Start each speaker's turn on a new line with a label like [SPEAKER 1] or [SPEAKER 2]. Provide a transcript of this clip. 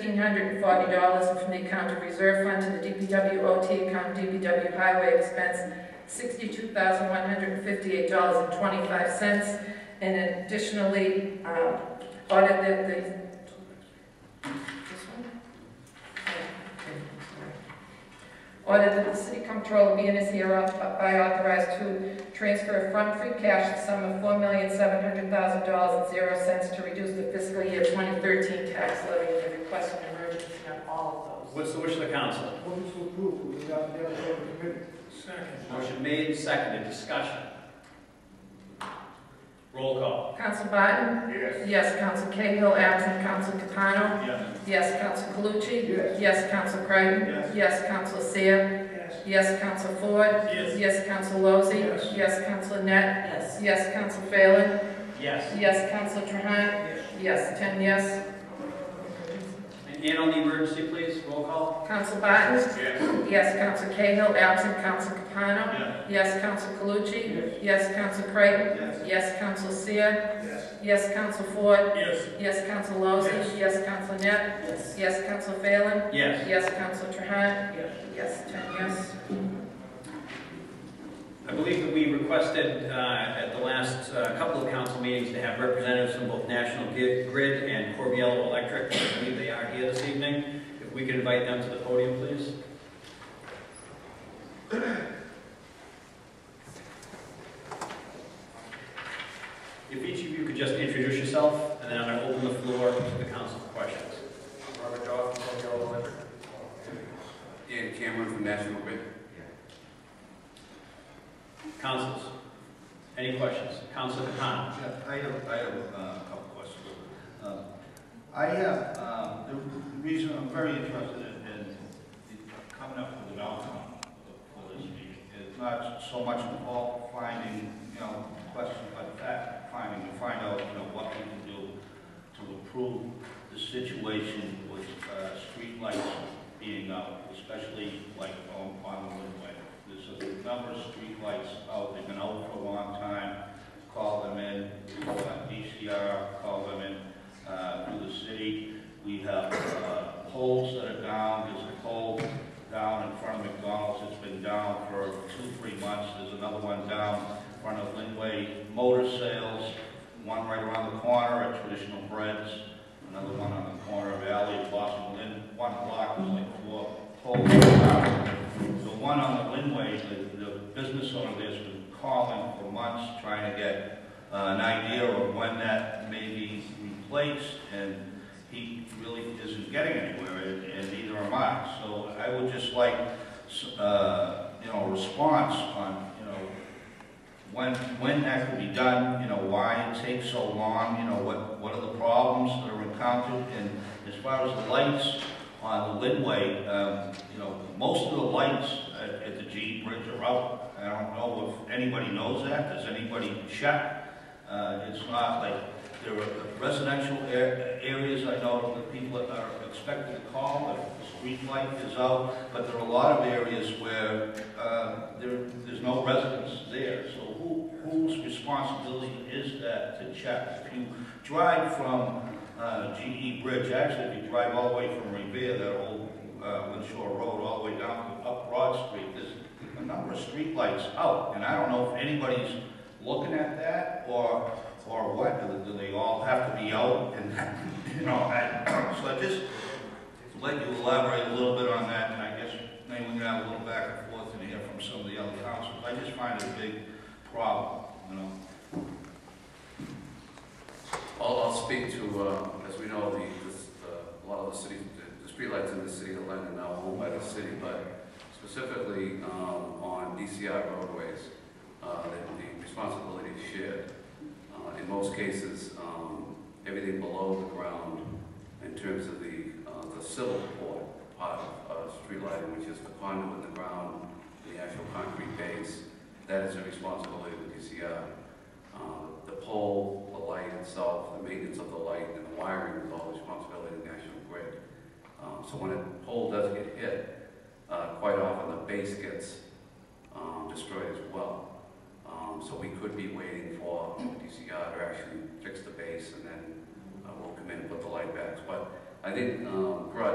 [SPEAKER 1] $1,540 from the account of reserve fund to the DPW OT account, DPW highway expense, $62,158.25. And additionally, um, audit the, the, this one? Yeah, okay, sorry. Audit that the city comptroller be and is hereby authorized to transfer from free cash the sum of $4,700,000.00 to reduce the fiscal year 2013 tax levy and request an emergency on all of those.
[SPEAKER 2] What's the wish of the council?
[SPEAKER 3] Move to approve without the other committee.
[SPEAKER 2] Motion made, and seconded, discussion. Roll call.
[SPEAKER 1] Council Biden?
[SPEAKER 3] Yes.
[SPEAKER 1] Yes, Council Cahill, absent Council Capano?
[SPEAKER 2] Yes.
[SPEAKER 1] Yes, Council Calucci?
[SPEAKER 3] Yes.
[SPEAKER 1] Yes, Council Creighton?
[SPEAKER 2] Yes.
[SPEAKER 1] Yes, Council Seer?
[SPEAKER 3] Yes.
[SPEAKER 1] Yes, Council Ford?
[SPEAKER 2] Yes.
[SPEAKER 1] Yes, Council Lozey?
[SPEAKER 3] Yes.
[SPEAKER 1] Yes, Council Net? Yes. Yes, Council Phelan?
[SPEAKER 2] Yes.
[SPEAKER 1] Yes, Council Trahan?
[SPEAKER 3] Yes.
[SPEAKER 1] Yes, ten yes.
[SPEAKER 2] And Ann on the emergency, please, roll call.
[SPEAKER 1] Council Barton?
[SPEAKER 2] Yes.
[SPEAKER 1] Yes, Council Cahill, absent Council Capano? Yes, Council Calucci? Yes, Council Creighton?
[SPEAKER 2] Yes.
[SPEAKER 1] Yes, Council Seer?
[SPEAKER 3] Yes.
[SPEAKER 1] Yes, Council Ford?
[SPEAKER 2] Yes.
[SPEAKER 1] Yes, Council Lozey? Yes, Council Net? Yes. Yes, Council Phelan?
[SPEAKER 2] Yes.
[SPEAKER 1] Yes, Council Trahan?
[SPEAKER 3] Yes.
[SPEAKER 1] Yes, ten yes.
[SPEAKER 2] I believe that we requested uh, at the last uh, couple of council meetings to have representatives from both National Gi- Grid and Corbiello Electric. I believe they are here this evening. If we could invite them to the podium, please. If each of you could just introduce yourself, and then I'm going to open the floor to the council for questions.
[SPEAKER 4] Robert Goff from Colorado Electric.
[SPEAKER 5] Dan Cameron from National Grid.
[SPEAKER 2] Councils, any questions? Council Capano?
[SPEAKER 6] Jeff, I have, I have uh, a couple questions. Um, I have, um, the reason I'm very interested in, in coming up with an outcome for this meeting is not so much involved finding, you know, questions but fact finding, to find out, you know, what we can do to improve the situation with uh, streetlights being out, especially like on, on Woodway. There's a number of streetlights out, they've been out for a long time call them in, uh, DCR, call them in, uh, through the city. We have, uh, poles that are down, there's a pole down in front of McDonald's, it's been down for two, three months. There's another one down in front of Linway Motor Sales, one right around the corner at Traditional Breads, another one on the corner of Alley and Boston Lynn, one block, there's like four poles down. The one on the Linway, the, the business owner there's been calling for months, trying to get uh, an idea of when that may be replaced, and he really isn't getting anywhere, and and neither am I. So I would just like, s- uh, you know, a response on, you know, when, when that could be done, you know, why it takes so long, you know, what, what are the problems that are encountered? And as far as the lights, on the Linway, um, you know, most of the lights at, at the G Bridge are out. I don't know if anybody knows that, does anybody check? Uh, it's not like, there are residential ar- areas, I know that people are expected to call if the street light is out, but there are a lot of areas where, uh, there, there's no residents there. So who, whose responsibility is that to check? If you drive from uh, GE Bridge, actually, if you drive all the way from Revere, that old uh, Winshore Road, all the way down to up Broad Street, there's a number of streetlights out, and I don't know if anybody's looking at that, or, or what, do do they all have to be out, and, you know, I, so I just let you elaborate a little bit on that, and I guess maybe we can have a little back and forth in here from some of the other councils, I just find it a big problem, you know?
[SPEAKER 5] I'll, I'll speak to, uh, as we know, the, this, uh, a lot of the city, the- the streetlights in the city of London are now owned by the city, but specifically, um, on DCI roadways, uh, the the responsibility is shared. Uh, in most cases, um, everything below the ground in terms of the, uh, the civil port part of, uh, street lighting, which is the conduit in the ground, the actual concrete base, that is the responsibility of DCI. Um, The pole, the light itself, the maintenance of the light, and the wiring is all the responsibility of National Grid. Um, So when a pole does get hit, uh, quite often the base gets um, destroyed as well. Um, So we could be waiting for DCR to actually fix the base, and then uh, we'll come in and put the light back. But I think, um, Grudge